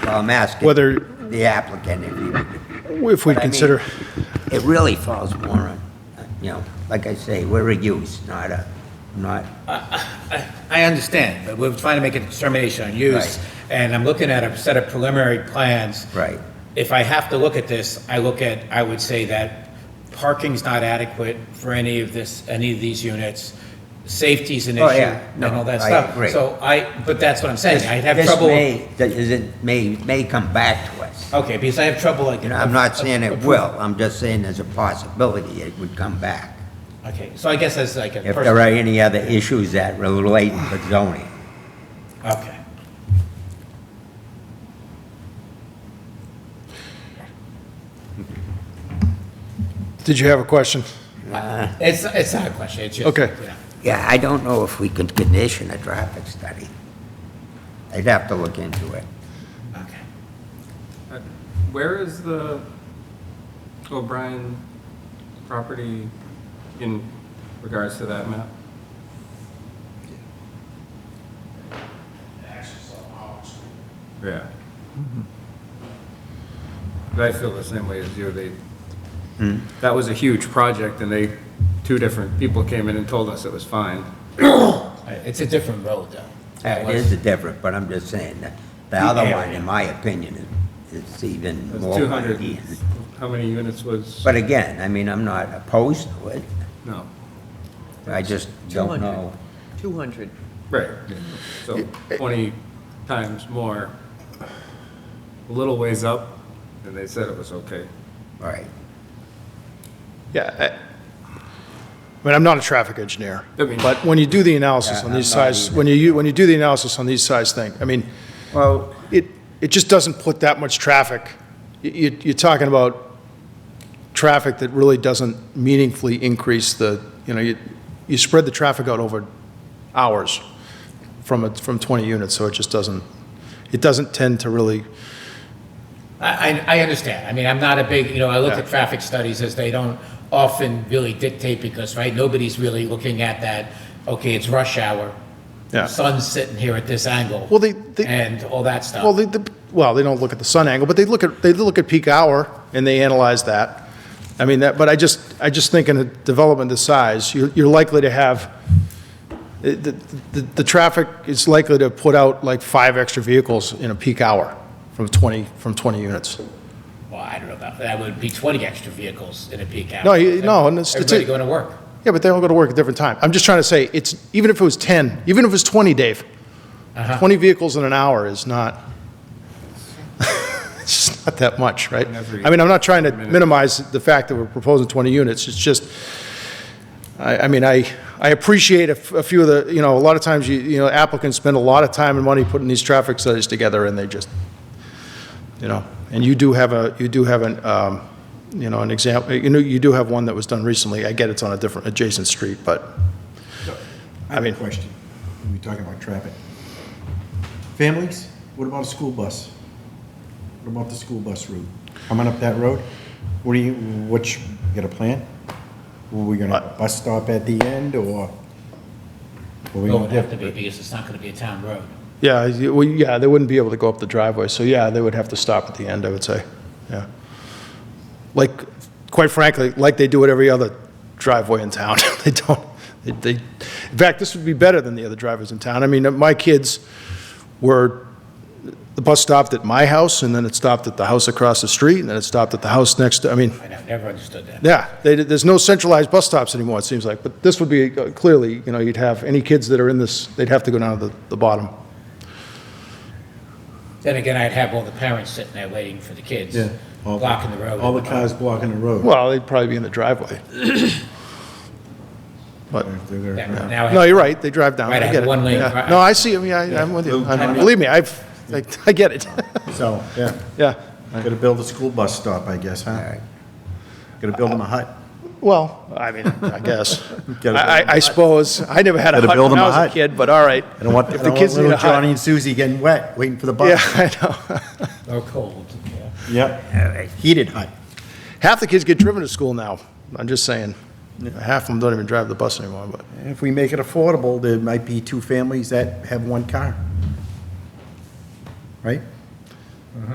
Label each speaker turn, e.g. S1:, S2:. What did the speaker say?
S1: I'm asking
S2: Whether-
S1: the applicant if he would
S2: If we
S1: But I mean,
S2: consider,
S1: It really falls more on, you know, like I say, we're a use, not a, not,
S3: I I understand, but we're trying to make a determination on use,
S1: Right.
S3: and I'm looking at a set of preliminary plans.
S1: Right.
S3: If I have to look at this, I look at, I would say that parking's not adequate for any of this, any of these units. Safety's an
S1: Oh,
S3: issue
S1: yeah.
S3: and all that
S1: No, I
S3: stuff.
S1: agree.
S3: So I, but that's what I'm saying, I'd have
S1: This
S3: trouble.
S1: may- that is- It may, may come back to us.
S3: Okay, because I have trouble like.
S1: You know, I'm not saying it will, I'm just saying there's a possibility it would come back.
S3: Okay, so I guess that's like a.
S1: If
S3: personal-
S1: there are any other issues that relate to zoning.
S3: Okay.
S2: did you have a question?
S3: It's, it's not a question, it's just.
S2: Okay.
S3: yeah.
S1: Yeah, I don't know if we could condition a traffic study. I'd have to look into it.
S3: Okay.
S4: Uh, Where is the O'Brien property in regards to that map? Yeah. Mm-hmm. I feel the same way as you. They, that was a huge project and they, two different people came in and told us it was fine.
S3: All right, It's a different road, though.
S1: It is different, but I'm just saying that the other one, in my opinion, is is
S4: It
S1: even
S4: was
S1: more.
S4: 200
S1: ideas.
S4: How many units was?
S1: But again, I mean, I'm not opposed to it.
S4: No.
S1: I just don't know.
S5: 200.
S4: Right. So 20 times more, a little ways up, and they said it was okay.
S1: Right.
S2: Yeah. I- I mean, I'm not a traffic engineer,
S4: I mean-
S2: but when you do the analysis
S1: Yeah,
S2: on
S1: I'm
S2: these
S1: not
S2: size,
S1: either.
S2: when you, when you do the analysis on these size thing, I mean,
S1: Well,
S2: it, it just doesn't put that much traffic. Y- You, you're talking about traffic that really doesn't meaningfully increase the, you know, you, you spread the traffic out over hours from, a- from 20 units, so it just doesn't, it doesn't tend to really,
S3: I, I I understand. I mean, I'm not a big, you know, I look
S2: Yeah.
S3: at traffic studies as they don't often really dictate because, right, nobody's really looking at that, okay, it's rush hour.
S2: Yeah.
S3: Sun's sitting here at this angle.
S2: Well, they- they-
S3: And all that stuff.
S2: well, they, the- well, they don't look at the sun angle, but they look at, they look at peak hour, and they analyze that. I mean, that, but I just, I just think in a development this size, you're, you're likely to have, the, the, the- the traffic is likely to put out like five extra vehicles in a peak hour from 20, from 20 units.
S3: Well, I don't know about, that would be 20 extra vehicles in a peak hour.
S2: No, you- no, and it's- it's a-
S3: Everybody going to work.
S2: Yeah, but they all go to work at different time. I'm just trying to say, it's, even if it was 10, even if it was 20, Dave, 20 vehicles in an hour is not, it's just not that much, right?
S4: Every
S2: I mean, I'm not trying to
S4: minute.
S2: minimize the fact that we're proposing 20 units, it's just, I, I mean, I, I appreciate a f- a few of the, you know, a lot of times, you, you know, applicants spend a lot of time and money putting these traffic studies together, and they just, you know, and you do have a, you do have an, um, you know, an example, you know, you do have one that was done recently. I get it's on a different adjacent street, but,
S6: I have
S2: mean-
S6: a question. We're talking about traffic. Families, what about a school bus? What about the school bus route? Coming up that road? What do you, what, you got a plan? Are we gonna
S2: Uh,
S6: have a bus stop at the end or? are we
S3: It
S6: gonna
S3: would have to be because it's not going to be a town road.
S2: yeah, you- well, yeah, they wouldn't be able to go up the driveway, so yeah, they would have to stop at the end, I would say, yeah. Like, quite frankly, like they do at every other driveway in town, they don't, they- they, in fact, this would be better than the other driveways in town. I mean, my kids were, the bus stopped at my house, and then it stopped at the house across the street, and then it stopped at the house next, to I mean,
S3: I nev- never understood that.
S2: Yeah, they, there's no centralized bus stops anymore, it seems like, but this would be, uh, clearly, you know, you'd have, any kids that are in this, they'd have to go down to the, the bottom.
S3: Then again, I'd have all the parents sitting there waiting for the kids,
S6: Yeah. all-
S3: blocking the road.
S6: All the cars blocking the road.
S2: Well, they'd probably be in the driveway. But,
S6: If they're there.
S3: Yeah, Now I
S2: no, you're right, they drive down, I
S3: Right, I
S2: get
S3: have
S2: it.
S3: one lane
S2: yeah.
S3: drive.
S2: No, I see, I mean, I, I'm with you, I- believe me, I've, I I get it,
S6: So, yeah,
S2: yeah.
S6: gotta build a school bus stop, I guess,
S1: all
S6: huh?
S1: right.
S6: Gotta build them a hut.
S2: Well, I mean, I guess,
S6: Gotta
S2: I, I- I suppose, I never had a
S6: Gotta
S2: hut
S6: build
S2: when
S6: them
S2: I
S6: a
S2: was a
S6: hut.
S2: kid, but all right.
S6: I don't want,
S2: If
S6: I don't
S2: the
S6: want
S2: kids need
S6: little
S2: a hut-
S6: Johnny and Susie getting wet, waiting for the
S2: Yeah,
S6: bus.
S2: I know.
S3: or cold, yeah.
S6: Yep,
S1: All right.
S6: heated hut.
S2: Half the kids get driven to school now, I'm just saying. Half of them don't even drive the bus anymore, but.
S6: If we make it affordable, there might be two families that have one car. Right?